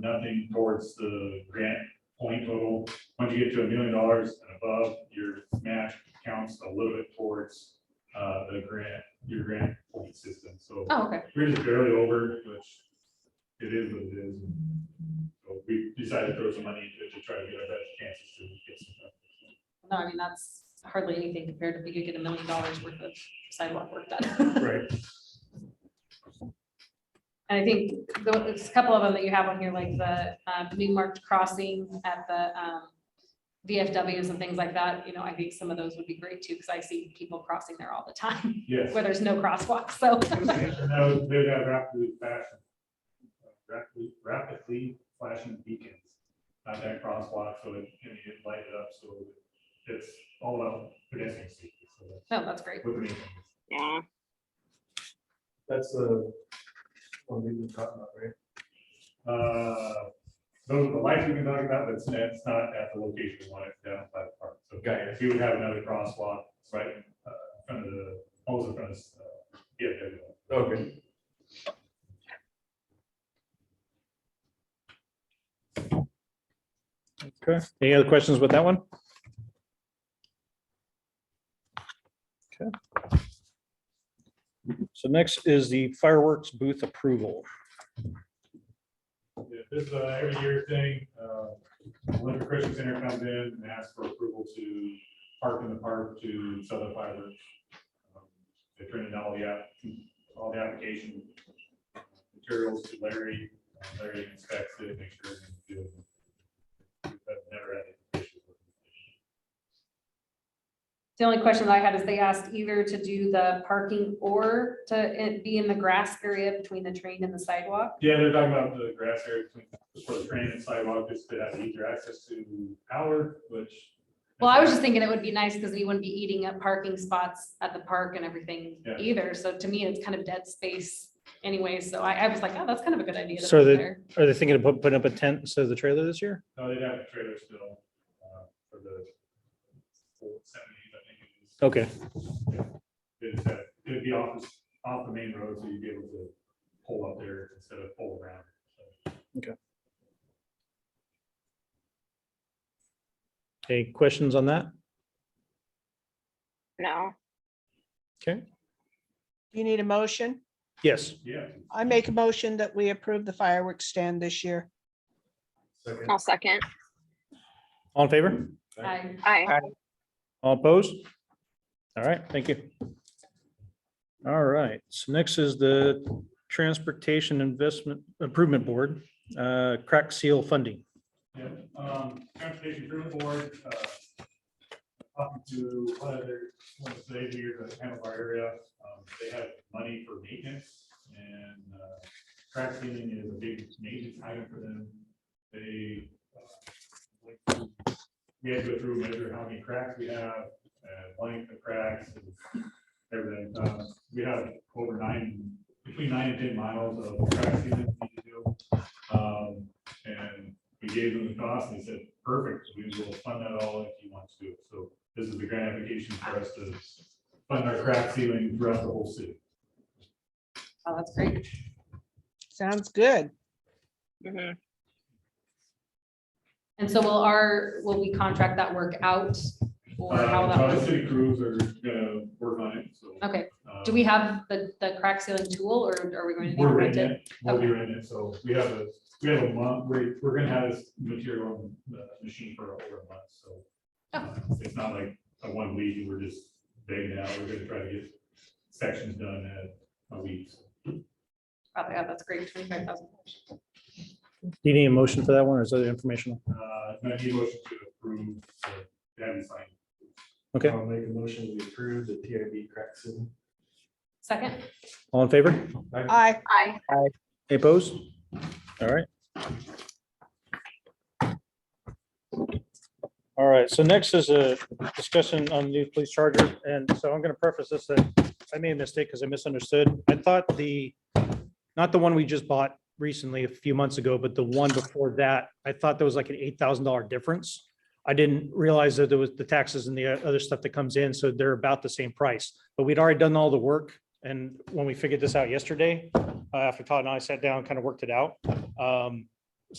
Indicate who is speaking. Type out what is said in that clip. Speaker 1: nothing towards the grant point total. Once you get to a million dollars and above, your match counts a little bit towards uh, the grant, your grant point system. So
Speaker 2: Oh, okay.
Speaker 1: we're just barely over, which it is what it is. So we decided to throw some money to- to try to get our best chances to get some. done.
Speaker 2: No, I mean, that's hardly anything compared to if we could get a million dollars worth of sidewalk work done.
Speaker 1: Right,
Speaker 2: And I think tho- there's a couple of them that you have on here, like the uh, new marked crossing at the um, VFWs and things like that, you know, I think some of those would be great too, because I see people crossing there all the time
Speaker 1: yes.
Speaker 2: where there's no crosswalk, so.
Speaker 1: And that was- They'd have rapidly flashing, rapidly, rapidly flashing beacons at that crosswalk, so it can get lighted up, so it's all about pedestrian safety. so that's
Speaker 2: No, that's great.
Speaker 1: what we need.
Speaker 3: Yeah,
Speaker 4: That's the one we've been talking about, right?
Speaker 1: Uh, Those are the lights we've been talking about, but it's not- it's not at the location we want it down by the park. So guy, if you would have another crosswalk, it's right in uh, in front of the, almost in front of, this, uh, yeah, there we go.
Speaker 4: Okay.
Speaker 5: Okay, any other questions with that one? Okay. So next is the fireworks booth approval.
Speaker 1: Yeah, This is a every year thing. Uh, Winter Christian Center comes in and asks for approval to park in the park to sell the fireworks. Um, They turn in all the, app- all the application materials to Larry. Uh, Larry inspects it, makes sure it's good. That's never had an issue with it.
Speaker 2: The only question that I had is they asked either to do the parking or to eh, be in the grass area between the train and the sidewalk.
Speaker 1: Yeah, they're talking about the grass area between, for the train and sidewalk, just to have easier access to power, which.
Speaker 2: Well, I was just thinking it would be nice because we wouldn't be eating up parking spots at the park and everything
Speaker 1: Yeah.
Speaker 2: either. So to me, it's kind of dead space anyway. So I, I was like, oh, that's kind of a good idea. to
Speaker 5: So
Speaker 2: put
Speaker 5: the-
Speaker 2: there.
Speaker 5: Are they thinking of put- putting up a tent instead of the trailer this year?
Speaker 1: No, they'd have a trailer still, uh, for the old seventies, I think it is.
Speaker 5: Okay,
Speaker 1: It's, uh, it'd be off, this- off the main road, so you'd be able to pull up there instead of pull around. so.
Speaker 5: any questions on that?
Speaker 3: no,
Speaker 6: You need a motion?
Speaker 5: Yes,
Speaker 1: Yeah.
Speaker 6: I make a motion that we approve the fireworks stand this year.
Speaker 4: Second.
Speaker 3: I'll second.
Speaker 5: all in favor?
Speaker 2: I-
Speaker 3: Aye.
Speaker 5: All opposed? All right, thank you. All right, so next is the Transportation Investment Improvement Board, uh, crack seal funding.
Speaker 1: Yeah, um, transportation crew board, uh, talking to one of their, one of the ladies here to handle our area, um, they have money for maintenance and, uh, crack sealing is a big maintenance item for them. They, uh, like to- we had to go through, and measure how many cracks we have, and length of cracks and everything. Uh, we have over nine, between nine and ten miles of crack sealing we need to do. Um, and we gave them the cost, and they said, perfect, we will fund that all if you want to. do it." So this is the grant application for us to fund our crack ceiling throughout the whole city.
Speaker 2: Oh, that's great.
Speaker 6: Sounds good.
Speaker 3: Mhm.
Speaker 2: And so will our, will we contract that work out? Or how
Speaker 1: Uh,
Speaker 2: that
Speaker 1: The
Speaker 2: works?
Speaker 1: city crews are gonna work on it, so.
Speaker 2: Okay,
Speaker 1: uh,
Speaker 2: do we have the, the crack sealing tool or are we going to? need to
Speaker 1: We're
Speaker 2: rent
Speaker 1: renting
Speaker 2: it?
Speaker 1: it, we'll be renting it, so we have a, we have a month, we're, we're gonna have this material, uh, machine for over a month, so.
Speaker 2: Oh.
Speaker 1: uh, It's not like a one week, and we're just begging out, we're gonna try to get sections done at a week.
Speaker 2: Oh, yeah, that's great. Twenty-five thousand.
Speaker 5: Do you need a motion for that one or is that informational?
Speaker 1: Uh, I need a motion to approve, uh, that and sign.
Speaker 5: Okay.
Speaker 4: I'll make a motion to approve the TIB crack ceiling.
Speaker 2: Second,
Speaker 5: All in favor?
Speaker 6: Aye.
Speaker 3: Aye.
Speaker 5: Any opposed? All right. All right, so next is a discussion on new police charger, and so I'm gonna preface this, that I made a mistake because I misunderstood. I thought the, not the one we just bought recently a few months ago, but the one before that, I thought there was like an eight thousand dollar difference. I didn't realize that there was the taxes and the other stuff that comes in, so they're about the same price. But we'd already done all the work, and when we figured this out yesterday, uh, after Todd and I sat down, kind of worked it out. Um,